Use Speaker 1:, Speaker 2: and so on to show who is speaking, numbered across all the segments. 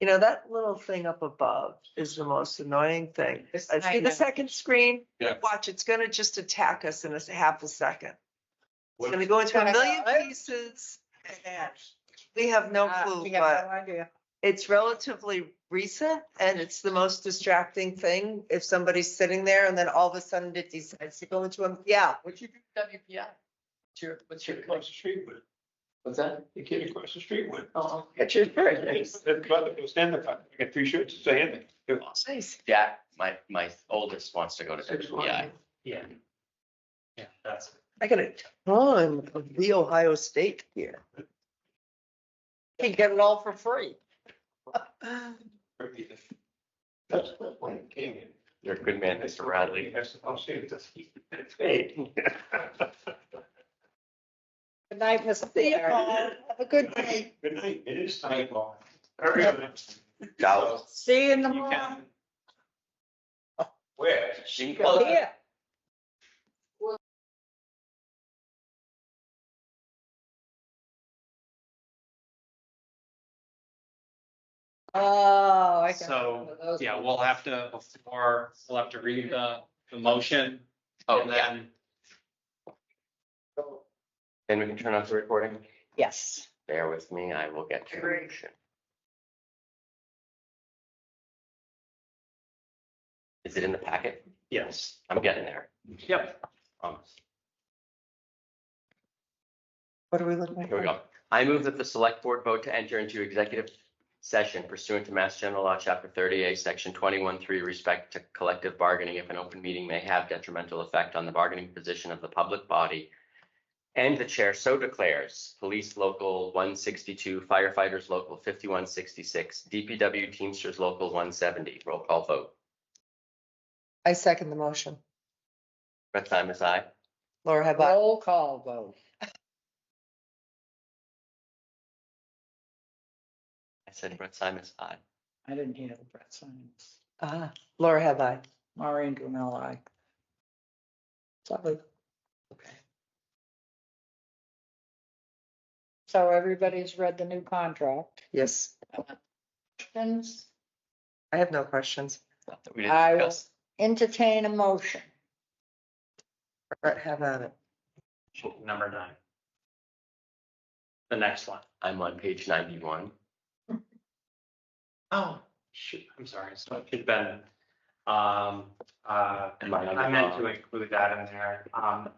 Speaker 1: You know, that little thing up above is the most annoying thing.
Speaker 2: This-
Speaker 1: I see
Speaker 2: I know.
Speaker 1: the second screen.
Speaker 3: Yeah.
Speaker 1: Watch, it's gonna just attack us in a s- half a second. It's
Speaker 3: What-
Speaker 1: gonna go into
Speaker 2: Can I
Speaker 1: a million
Speaker 2: follow it?
Speaker 1: pieces. and We have no
Speaker 2: Uh,
Speaker 1: clue,
Speaker 2: We have
Speaker 1: but
Speaker 2: no idea.
Speaker 1: it's relatively recent and it's the most distracting thing. If somebody's sitting there and then all of a sudden it decides to go into a, yeah.
Speaker 4: What'd you do with WPI? What's your, what's your,
Speaker 3: Kid across the street with,
Speaker 4: what's that?
Speaker 3: the kid across the street with.
Speaker 4: Oh,
Speaker 1: It's your
Speaker 3: His brother was standing up, I got three shirts, it's a hand.
Speaker 4: nice. Yeah, my, my oldest wants to go to WPI.
Speaker 5: Yeah. Yeah, that's.
Speaker 1: I got a ton of the Ohio State here. Can get it all for free.
Speaker 3: That's the point, it came in.
Speaker 4: You're a good man, Mr. Radley.
Speaker 3: Yes, I'll say it, that's- it's paid.
Speaker 2: Good night, Mr.
Speaker 1: See you,
Speaker 2: Blair.
Speaker 1: Paul. Have a good
Speaker 3: Good
Speaker 1: day.
Speaker 3: night, Good night. it is time. All right.
Speaker 4: Now,
Speaker 2: See you in the
Speaker 3: You
Speaker 2: morning.
Speaker 3: can. Where?
Speaker 4: Oh, she
Speaker 2: Well,
Speaker 4: goes.
Speaker 2: Here. Oh, I got one
Speaker 5: So,
Speaker 2: of those
Speaker 5: yeah,
Speaker 2: ones.
Speaker 5: we'll have to, before, we'll have to read the, the motion.
Speaker 4: Oh,
Speaker 5: and
Speaker 4: yeah,
Speaker 5: then
Speaker 4: then we can turn off the recording.
Speaker 2: Yes.
Speaker 4: Bear with me, I will get to
Speaker 2: Great.
Speaker 4: it. Is it in the packet?
Speaker 5: Yes,
Speaker 4: I'm getting there. Um,
Speaker 5: yep.
Speaker 4: Promise.
Speaker 1: What are we looking at?
Speaker 4: Here we go. I move that the select board vote to enter into executive session pursuant to Mass General Law, Chapter 30A, Section 21, 3, respect to collective bargaining if an open meeting may have detrimental effect on the bargaining position of the public body. And the chair so declares, Police Local 162, Firefighters Local 5166, DPW Teamsters Local 170. Roll call vote.
Speaker 1: I second the motion.
Speaker 4: Brett Simas, aye.
Speaker 1: Laura, have I?
Speaker 2: Roll call vote.
Speaker 4: I said Brett Simas, aye.
Speaker 2: I didn't hear the breath signs.
Speaker 1: Ah, Laura, have I?
Speaker 2: Maureen Gumel, I. Sorry.
Speaker 4: Okay.
Speaker 2: So everybody's read the new contract.
Speaker 1: Yes.
Speaker 2: Questions?
Speaker 1: I have no questions.
Speaker 4: Not that we didn't
Speaker 2: I will-
Speaker 4: discuss.
Speaker 2: Entertain a motion.
Speaker 1: Brett, have at it.
Speaker 5: Number nine. The next one.
Speaker 4: I'm on page 91.
Speaker 5: Oh. Shoot, I'm sorry, so it should have been, um, uh,
Speaker 4: Am I on the
Speaker 5: I meant
Speaker 4: wrong-
Speaker 5: to include that in there. Um,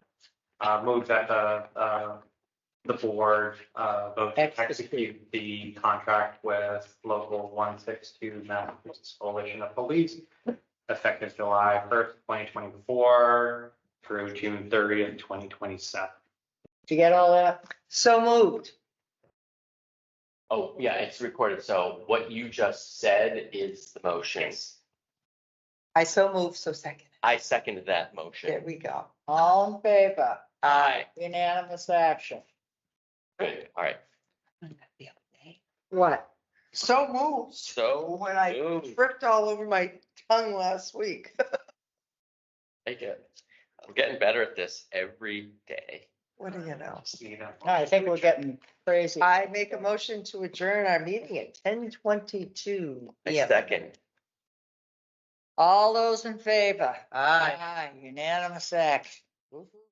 Speaker 5: uh, move that the, uh, the board, uh, vote to execute the contract with local one six two Massachusetts Coalition of Police effective July first, twenty twenty-four through June thirtieth, twenty twenty-seven.
Speaker 2: Did you get all that?
Speaker 1: So moved.
Speaker 4: Oh, yeah, it's recorded. So what you just said is the motion.
Speaker 1: I so moved, so second.
Speaker 4: I seconded that
Speaker 1: There
Speaker 4: motion.
Speaker 1: we go.
Speaker 2: All in favor?
Speaker 4: Aye.
Speaker 2: Unanimous action.
Speaker 4: Good. All right.
Speaker 1: What? So moved.
Speaker 4: So
Speaker 1: When I
Speaker 4: moved.
Speaker 1: tripped all over my tongue last week.
Speaker 4: Take it. I'm getting better at this every day.
Speaker 1: What do you know?
Speaker 2: I think we're getting crazy.
Speaker 1: I make a motion to adjourn our meeting at ten twenty-two.
Speaker 4: I second.
Speaker 2: All those in favor?
Speaker 1: Aye.
Speaker 2: Aye, unanimous action.